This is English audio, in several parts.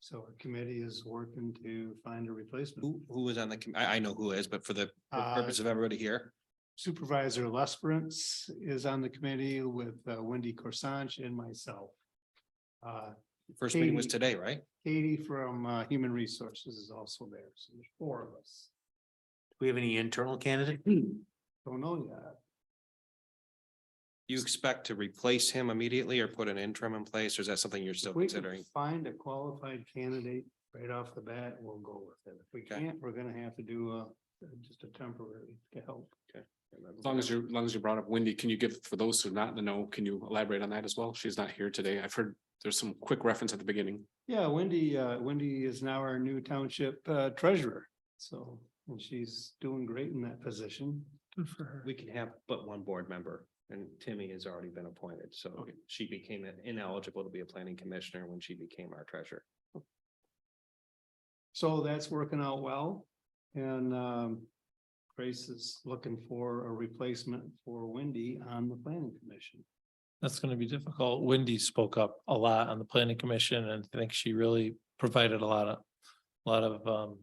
So our committee is working to find a replacement. Who, who was on the, com- I, I know who is, but for the Uh, purpose of everybody here, Supervisor Lesperance is on the committee with uh, Wendy Corsange and myself. Uh, first meeting was Katie. today, right? Katie from uh, Human Resources is also there, so there's four of us. Hmm. we have any internal candidate? Don't know yet. You expect to replace him immediately or put an interim in place, or is that something you're still If we can considering? Find a qualified candidate right off the bat, we'll go with it. If we Okay. can't, we're gonna have to do uh just a temporary to help. As long as you, as long as you brought up Wendy, can you give, for those who are not in the know, can you elaborate on that as well? She's not here today. I've heard there's some quick reference at the beginning. Yeah, Wendy, uh, Wendy is now our new township uh, treasurer, so, and she's doing great in that position. Good for her. We can have but one board member, and Timmy has already been appointed, so Okay. she became ineligible to be a planning commissioner when she became our treasurer. So that's working out well. And um, Grace is looking for a replacement for Wendy on the planning commission. That's gonna be difficult. Wendy spoke up a lot on the planning commission and I think she really provided a lot of, a lot of um.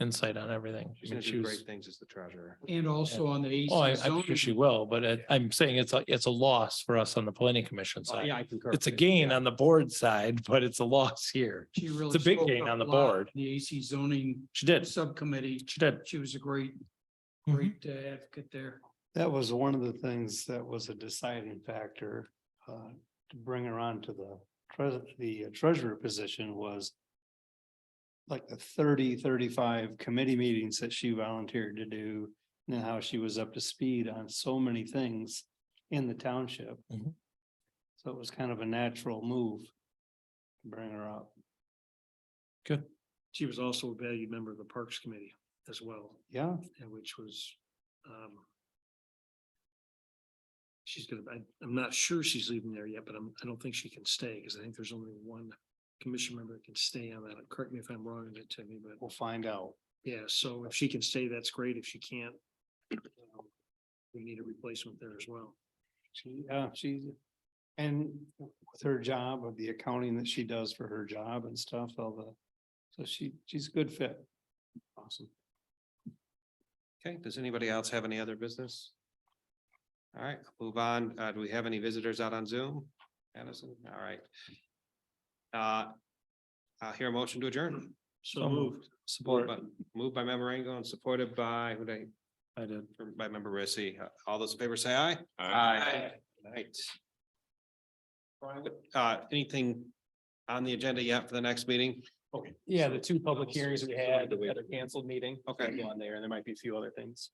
Insight on everything. I She's mean, gonna she do was, great things as the treasurer. And also on the oh, I, AC I'm sure she zoning, will, but it- I'm saying it's a, it's a loss for us on the planning commission Oh, side. I concur. It's a gain on the board side, but it's a loss here. she really. a big spoke gain up on the a lot board. in The AC zoning She did, subcommittee, she did. she was a great, Mm-hmm. Mhm. great uh, advocate there. That was one of the things that was a deciding factor uh, to bring her on to the treasurer, the treasurer position was like the 30, 35 committee meetings that she volunteered to do and how she was up to speed on so many things in the township. Mhm. So it was kind of a natural move to bring her up. She was also a valued member of the Parks Committee as well, Yeah, and which was, um. She's gonna, I, I'm not sure she's leaving there yet, but I'm, I don't think she can stay, because I think there's only one commission member that can stay on that. Correct me if I'm wrong, on that, Timmy, but we'll find out. yeah, so if she can stay, that's great. If she can't. um, We need a replacement there as well. She, uh, she's, and with her job of the accounting that she does for her job and stuff, all the, so she, she's a good fit. Awesome. Okay, does anybody else have any other business? All right, move on. Uh, do we have any visitors out on Zoom? Addison, all right. Uh, I'll hear a motion to adjourn. So moved. Support. Moved by member Rango and supported by, who did I did. I, by member Rissy. Uh, All those in favor say aye. Right. Uh, anything on the agenda yet for the next meeting? Yeah, the two public hearings we had, the other canceled meeting. Okay. on there, and there might be a few other things.